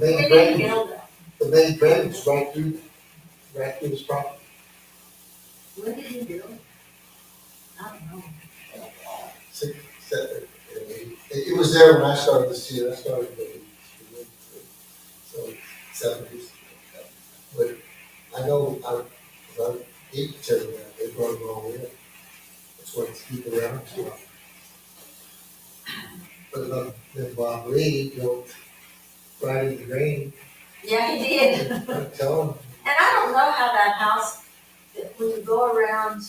main drainage, the main drainage is right through, right through this property. When did he build? I don't know. Six, seven, eight. It, it was there when I started this year, I started in, so, seventies. But I know, I, about eight to ten, they brought it all in. That's what it's keep around to. But then, then Bob Lee, you know, right in the rain, Yeah, he did. And tell him, I don't know how that house, that when you go around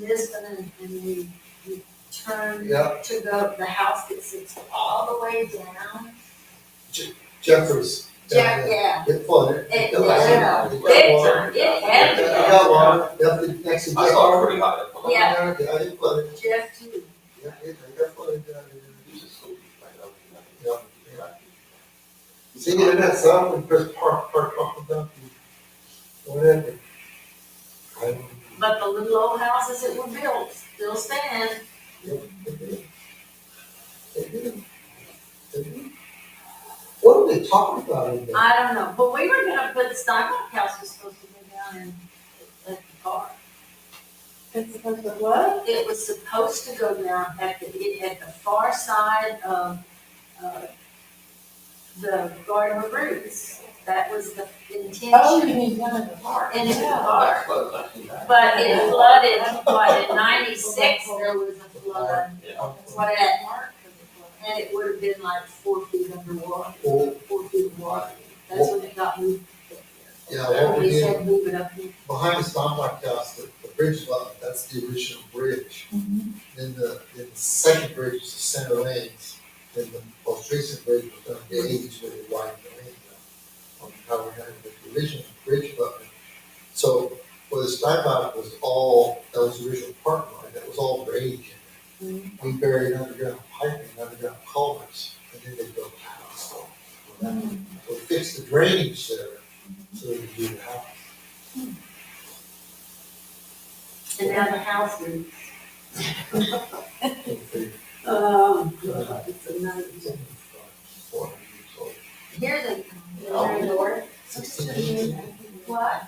Lisbon and, and you, you turn yeah, to go, the house that sits all the way down. Jeffers. Yeah, yeah. It flooded. It, No, I said- yeah, it got big water. time, it I had to be. got one, that's the next I example. saw it pretty hot. Yeah. I didn't flood it, Jeff too. yeah, it, I got flooded down there. It's just so like, that was- Yeah, yeah. See, in that sun, we just park, park, park it up, and whatever. I don't But the little old houses that were built still stand. know, they did. They did. They did. What are they talking about in there? I don't know, but we were gonna put Steinbach House was supposed to go down in, at the park. It's supposed to what? It was supposed to go down at the, it- at the far side of, uh, the Garden of Roots. That was the Oh, you intention mean one of the park. into the Yeah. park. That's what I think that- But it flooded, what, in ninety-six, there was a flood. Yeah. What it had marked for the flood, and it would have been like four feet underwater, Or, four feet of water. That's when it got moved. up there. yeah, what we They did, said move it up here. behind the Stompard House, the, the bridge lot, that's the original bridge. Then the, then the second bridge was the center lanes, then the most recent bridge was done in the eighties where they widened the lanes out. uh, On how we had the original bridge button. So, where the Steinbach was all, that was the original park line, that was all drainage in there. We buried underground piping, underground culverts, and then they built the house. So that- So we fixed the drainage there, so they could do the house. And now the house is, Something um, it's another. for you, so. Here they come. They're lower. What?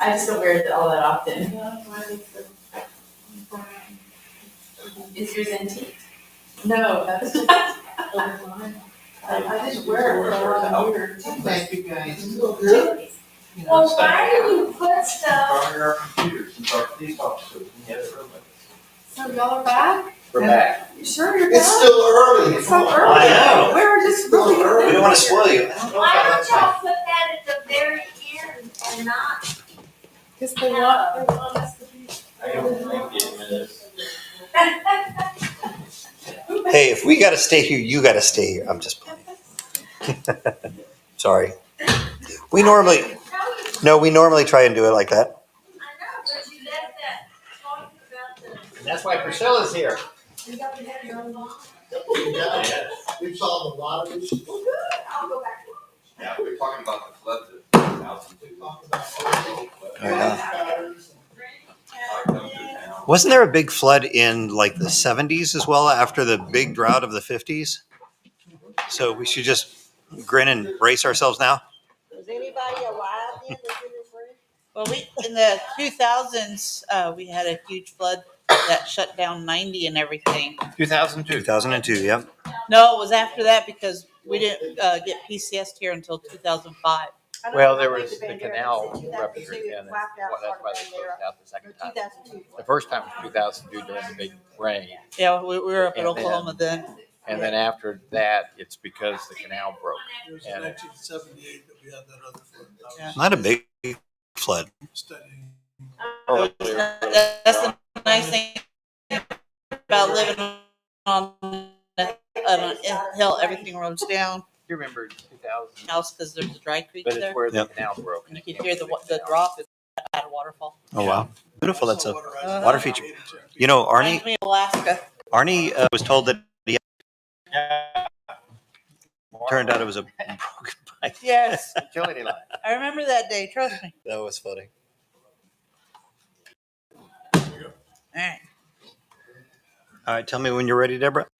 I just don't wear it all that often. Is yours antique? No, that's. I I just wear it for a lot of years. Thank you guys. You know, Well, it's like- why do you put stuff, Burning our computers since our police officers, and yet it really- So y'all are back? We're back. You sure you're It's back? still early. It's so Come early. on. I know. We were just Still really. early. We don't want to spoil you. why don't y'all put that at the very end and not? Cause they want- they want us to be. I don't like the minutes. Hey, if we gotta stay here, you gotta stay here. I'm just playing. Sorry. We normally, How you no, we normally try and do it like that. I know, but you left that talking about the. And that's why Priscilla's here. You got to have your own lawn. Yeah, We've solved a lot of issues. Well, good, I'll go back. Yeah, we were talking about the flood that thousand We two. talked about Yeah. patterns. Wasn't there a big flood in like the seventies as well after the big drought of the fifties? So we should just grin and brace ourselves now? Was anybody alive then that didn't agree? Well, we, in the two thousands, uh, we had a huge flood that shut down ninety and everything. Two thousand Two thousand and two, yep. No, it was after that because we didn't, uh, get PCS here until two thousand five. Well, there was the canal ruptured and that's why they closed out the second time. Two thousand two. The first time was two thousand two during the big rain. Yeah, we, we were up in And then- Oklahoma then. And then after that, it's because the canal broke. It was And- nineteen seventy-eight that we had that other flood. I was Not a big flood. studying. Oh. That's the nice thing about living on, a- on a hill, Um, everything rolls down, You remember two thousand, else, cause there's a dry creek but there. it's where the Yep. canal broke. And you can hear the, wa- the drop at a waterfall. Uh-huh. Oh, wow. Beautiful. I That's saw a, water rising water about feature. eight or 10 feet. you know, Arnie, Reminds me of Alaska. Arnie uh, was told that he turned out it was a broken pipe. Yes, Utility line. I remember that day, trust me. That was funny. All right. All right, tell me when you're ready, Deborah.